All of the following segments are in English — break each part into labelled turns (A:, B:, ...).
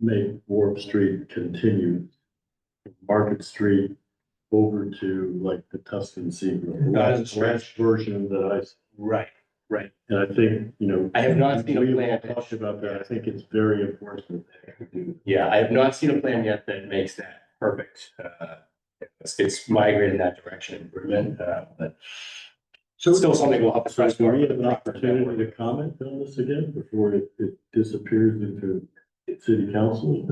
A: make Warp Street continue Market Street over to like the Tuscan Seagull, the
B: Not as
A: last,
B: a
A: last version that I,
B: Right.
A: and I think, you know.
B: I have not seen a
A: we've
B: plan.
A: all Talked about that. I think it's very important. that we do
B: Yeah, I have not seen a plan yet that makes that perfect. Uh, It's, it's migrated in that direction improvement, uh, but
C: So-
B: still something we'll have to.
A: So
B: press
A: do
B: more.
A: we have an opportunity to comment on this again before it, it disappears into city council?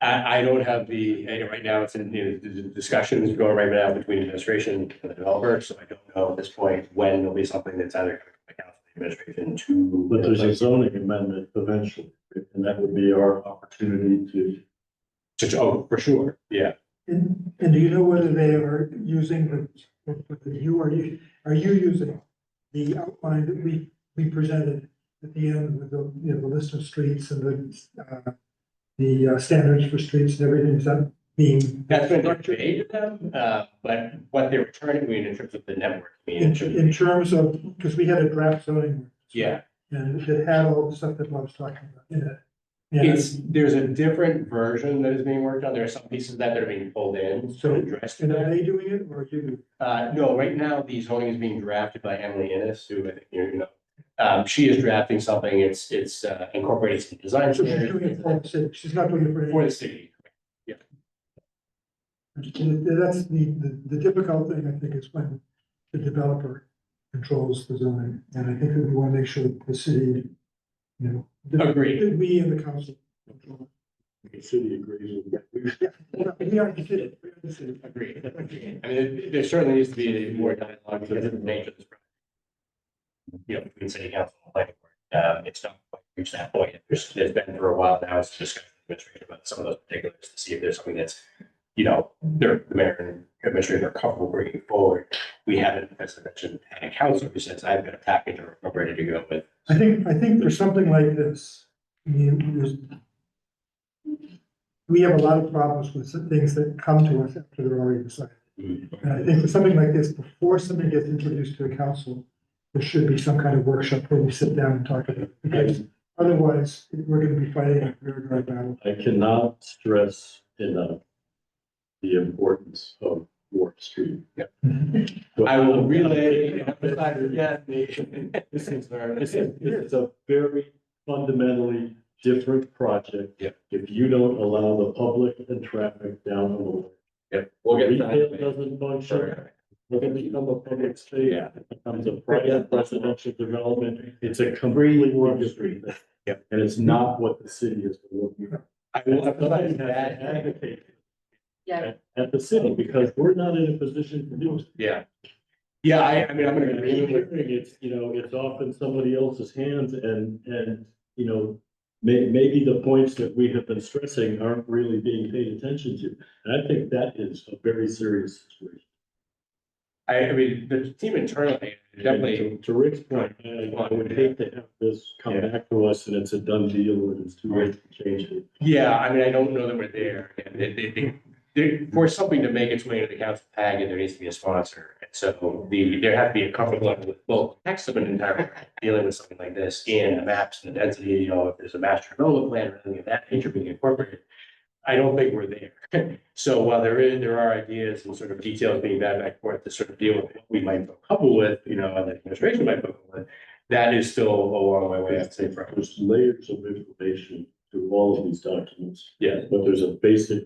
B: I, I don't have the, I know right now it's in, you know, the the discussions going right now between administration and the developer, so I don't know at this point when it'll be something that's either coming from the council, the administration to.
A: But there's a zoning amendment eventually, and that would be our opportunity to.
B: To- oh, for sure, yeah.
C: And, and do you know whether they are using the, what the- you are, you, are you using the outline that we, we presented at the end with the, you know, the list of streets and the, uh, the uh, standards for streets and everything, is that being?
B: That's been conveyed to them, uh, but what they're returning me in terms of the network. I mean,
C: In,
B: in terms of-
C: in terms of, because we had a draft zoning.
B: Yeah,
C: And it had all the stuff that Bob's talking about in it. And
B: it's, there's a different version that is being worked on. There are some pieces of that that are being pulled in, so
C: So-
B: addressed to
C: and are
B: that.
C: they doing it or are you? doing it?
B: Uh, no, right now, the zoning is being drafted by Emily Innes, who I think you know. Um, she is drafting something, it's, it's uh, incorporated some design
C: So she's doing it for
B: standards
C: the city, she's not doing it for any.
B: for the city.
C: That's the, the, the difficult thing, I think, is when the developer controls the zoning, and I think that we wanna make sure that the city, you know. that-
B: Agreed.
C: that We and the council. control
A: The city agrees with that.
C: it. We are the city, we are the city.
B: Agreed. I mean, there- there certainly needs to be more dialogue because of the nature of this. project. You know, between city council and planning board, um, it's not quite reached that point. There's, there's been for a while now, it's just administrative about some of those particulars to see if there's something that's, you know, they're, the mayor and administrator are comfortable bringing forward. We haven't, as I mentioned, had a council who says, I've got a package or I'm ready to go with.
C: I think, I think for something like this, I mean, there's. We have a lot of problems with some things that come to us after they're already decided. And I think for something like this, before something gets introduced to the council, there should be some kind of workshop where we sit down and talk about it. Because otherwise, we're gonna be fighting a very dry battle.
A: I cannot stress enough the importance of Warp Street.
B: I will relay, and emphasize again, the-
A: This is, this is, this is a very fundamentally different project.
B: Yep.
A: If you don't allow the public and traffic down the road.
B: Yep, we'll get
A: Retail
B: that.
A: doesn't function, we're gonna become a public space.
B: Yeah.
A: It becomes a private residential development, it's a completely different thing.
B: Yep.
A: And it's not what the city is looking for.
B: I will
A: Somebody
B: emphasize
A: has to
B: that.
A: advocate
D: Yeah.
A: at- At the city, because we're not in a position to do it.
B: Yeah. Yeah, I, I mean, I'm gonna agree with you.
A: It's, you know, it's off in somebody else's hands and, and, you know, may, maybe the points that we have been stressing aren't really being paid attention to. And I think that is a very serious situation.
B: I, I mean, the team internally, definitely,
A: And To to Rick's point, I I would hate to have this come back to us and it's a done deal and it's too late to change it.
B: yeah, I mean, I don't know that we're there. And they, they, they, there- for something to make its way into the council packet, there needs to be a sponsor. And so the, there have to be a comfort level with, well, text of an entire, dealing with something like this and the maps and the density, you know, if there's a master development plan or anything of that nature being incorporated. I don't think we're there. So while there is, there are ideas and sort of details being back and forth to sort of deal with what we might feel comfortable with, you know, and the administration might feel comfortable with. That is still a long way away, I'd say, from.
A: There's layers of information through all of these documents.
B: Yeah.
A: But there's a basic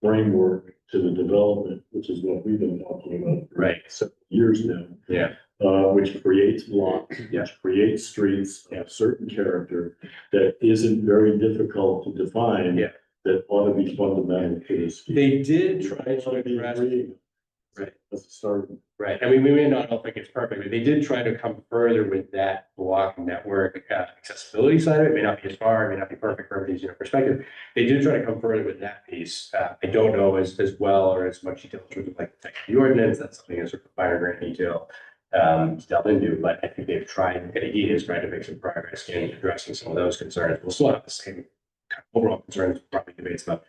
A: framework to the development, which is what we've been talking about. for
B: Right.
A: several Years now.
B: Yeah.
A: Uh, which creates blocks,
B: Yeah.
A: which creates streets
B: Yeah.
A: of certain character that isn't very difficult to define.
B: Yeah.
A: That ought to be fundamental to this.
B: They did try to address, Right.
A: That's a start.
B: right, I mean, we may not all think it's perfect, but they did try to come further with that block network uh, accessibility side of it, It may not be as far, it may not be perfect from everybody's, you know, perspective. They did try to come further with that piece, uh, I don't know as, as well or as much detail in terms of like the text of the ordinance, that's something that's sort of finer grain detail. Um, to delve into, but I think they've tried, and he has tried to make some progress in addressing some of those concerns, we'll still have the same kind of overall concerns, probably debates about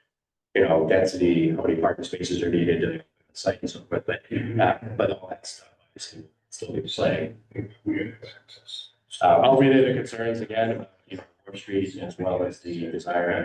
B: you know, density, how many parking spaces are needed to the site and so forth, but, uh, but all that stuff, obviously, still be playing. Uh, I'll relay the concerns again, about, you know, Warp Street as well as the desire